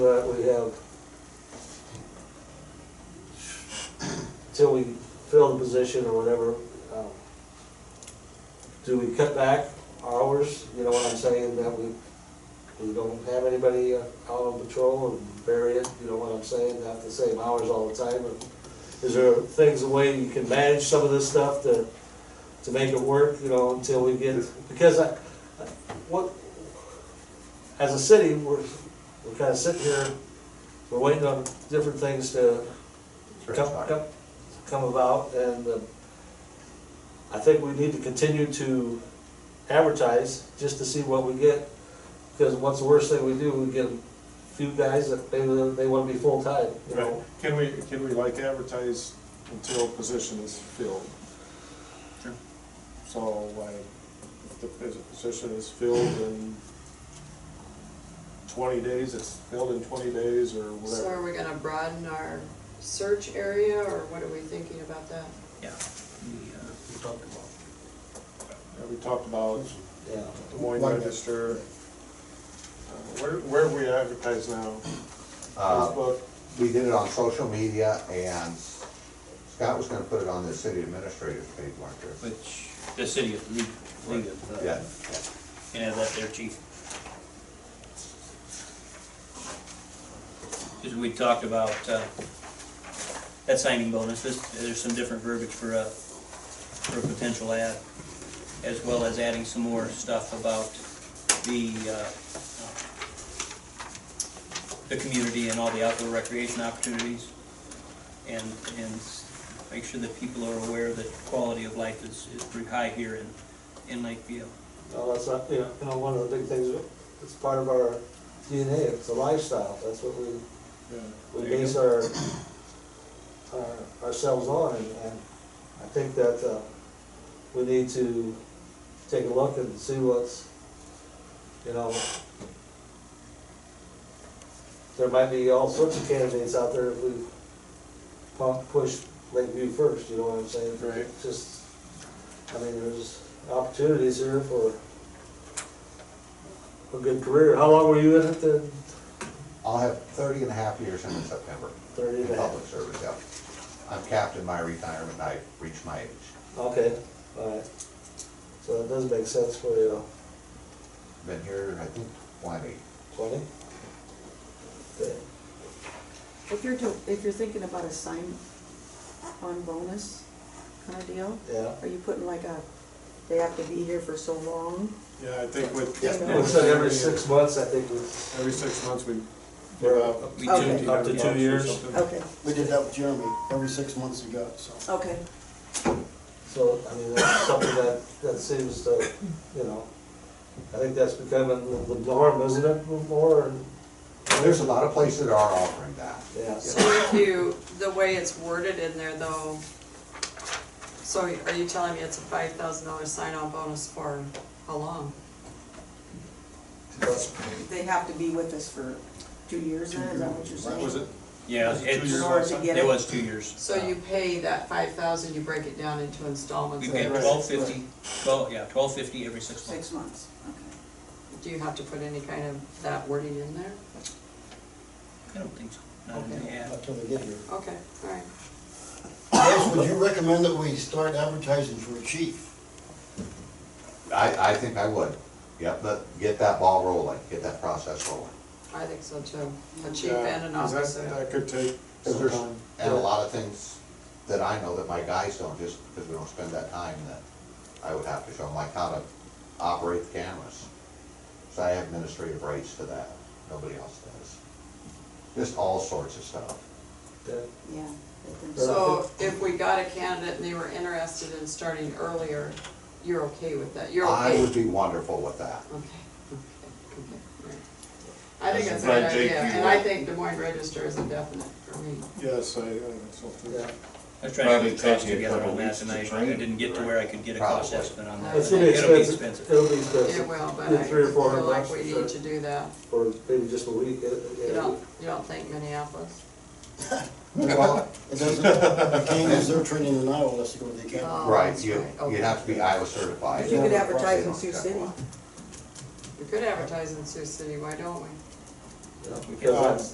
position or whatever, um, do we cut back hours, you know what I'm saying, that we, we don't have anybody uh, out on patrol and bury it, you know what I'm saying, have the same hours all the time, or is there things, a way you can manage some of this stuff to, to make it work, you know, until we get, because I, I- what, as a city, we're, we're kinda sitting here, we're waiting on different things to come, come, come about, and uh, I think we need to continue to advertise, just to see what we get, because what's the worst thing we do, we get a few guys that maybe they wanna be full-time, you Right, know? can we, can we like advertise until a position is filled? Sure. So like, if the pos- position is filled in twenty days, it's filled in twenty days or So whatever. are we gonna broaden our search area, or what are we thinking about that? Yeah. we, uh, We talked about- And We talked about Yeah. Des Moines Register. Uh, Where, where we advertise now, Uh, Facebook, We did it on social media and Scott was gonna put it on the city administrator's page, weren't there? Which, the city of, League, League of, uh, Yeah, can have that there, chief. Cause we talked about, uh, that signing bonus, this, there's some different verbiage for a, for a potential ad, as well as adding some more stuff about the, uh, the community and all the outdoor recreation opportunities, and, and s- make sure that people are aware that quality of life is, is pretty high here in, in Lakeview. No, that's not, you know, you know, one of the big things, it's part of our DNA, it's a lifestyle, that's what we, yeah, we There you base our, our, ourselves on, and, and I think that, uh, we need to take a look and see what's, you know, there might be all sorts of candidates out there if we pu- push Lakeview first, you know what I'm saying? right? just, I mean, there's opportunities here for a good career. How long were you in it then? I'll have thirty and a half years in September Thirty in and a half? public service, yeah. I'm capped in my retirement, I reached my age. Okay, all right. So that does make sense for you, Been here, I think, twenty. twenty? Okay. If you're, do- if you're thinking about a sign on bonus kind of deal, Yeah. are you putting like a, they have to be here for so long? Yeah, I think with. Yeah. It Looks like every six months, I think, we- Every six months we. We're give up- out We Okay. do- up to two years. Okay, We did that with Jeremy every six months ago, so. okay. So, I mean, that's something that, that seems to, you know, I think that's becoming the norm, isn't it, more? and- There's a lot of places that are offering that. Yeah. So if you, the way it's worded in there though, so are you telling me it's a five thousand dollar sign-on bonus for how long? They have to be with us for two years then, is that what you're saying? Was it Yeah, Was it two it's, years In order last to time? get it it, was two years. So you pay that five thousand, you break it down into We installments, pay Right. twelve fifty, twelve, yeah, twelve fifty every six months. six months, okay. do you have to put any kind of that wording in there? I don't think so, not in the ad. Until they get here. Okay, alright. Yes, would you recommend that we start advertising for a chief? I, I think I would. Yep, but get that ball rolling, get that process rolling. I think so too, a chief Yeah, and an 'cause that- officer. That could take Cause some there's, time. and a lot of things that I know that my guys don't, just because we don't spend that time, that I would have to show them, like how to operate the cameras. So I have administrative rights to that, nobody else does. Just all sorts of stuff. Yeah. Yeah. let them- So if we got a candidate and they were interested in starting earlier, you're okay with that? You're I okay? would be wonderful with that. Okay, okay, okay, right. I think that's a good Right, Jake, idea, you- and I think Des Moines Register is a definite for me. Yes, I, I think so too. Yeah. I was trying to Probably get the cost take you a together couple on that weeks to and I, I train, didn't get to where I could get a cost Probably. estimate on that. It's gonna be It'll be expensive, it'll be expensive. It will, but Two, I three or feel four hundred like bucks we for need sure. to do that. Or maybe just a week, uh, it- it- You don't, you don't think Minneapolis? Well, it doesn't, they can't use their training in Iowa unless they go to the Oh, academy. Right, that's you, right, you okay. have to be Iowa certified. If you could advertise in They Sioux don't City, check one. We could advertise in Sioux City, why don't we? you know, We can- because that's-